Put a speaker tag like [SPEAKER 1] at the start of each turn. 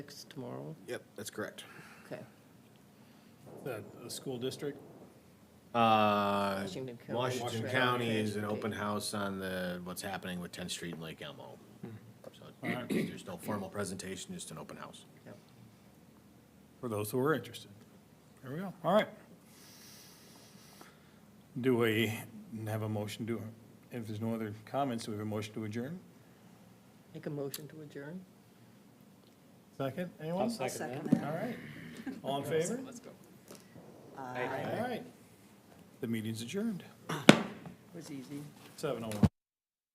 [SPEAKER 1] Six tomorrow?
[SPEAKER 2] Yep, that's correct.
[SPEAKER 1] Okay.
[SPEAKER 3] That, a school district?
[SPEAKER 2] Uh,
[SPEAKER 1] Washington County.
[SPEAKER 2] Washington
[SPEAKER 1] Washington
[SPEAKER 2] County is an
[SPEAKER 1] County.
[SPEAKER 2] open house on the, what's happening with 10th Street and Lake Elmo. So
[SPEAKER 3] Alright.
[SPEAKER 2] there's no formal presentation, just an open house.
[SPEAKER 1] Yep.
[SPEAKER 3] For those who are interested. There we go, all right. Do we have a motion to, if there's no other comments, do we have a motion to adjourn?
[SPEAKER 1] Make a motion to adjourn?
[SPEAKER 3] 2nd anyone?
[SPEAKER 4] I'll second
[SPEAKER 3] All
[SPEAKER 4] that.
[SPEAKER 3] right, all in favor?
[SPEAKER 4] Aye.
[SPEAKER 3] All right. The meeting's adjourned,
[SPEAKER 1] Was easy.
[SPEAKER 3] seven oh one.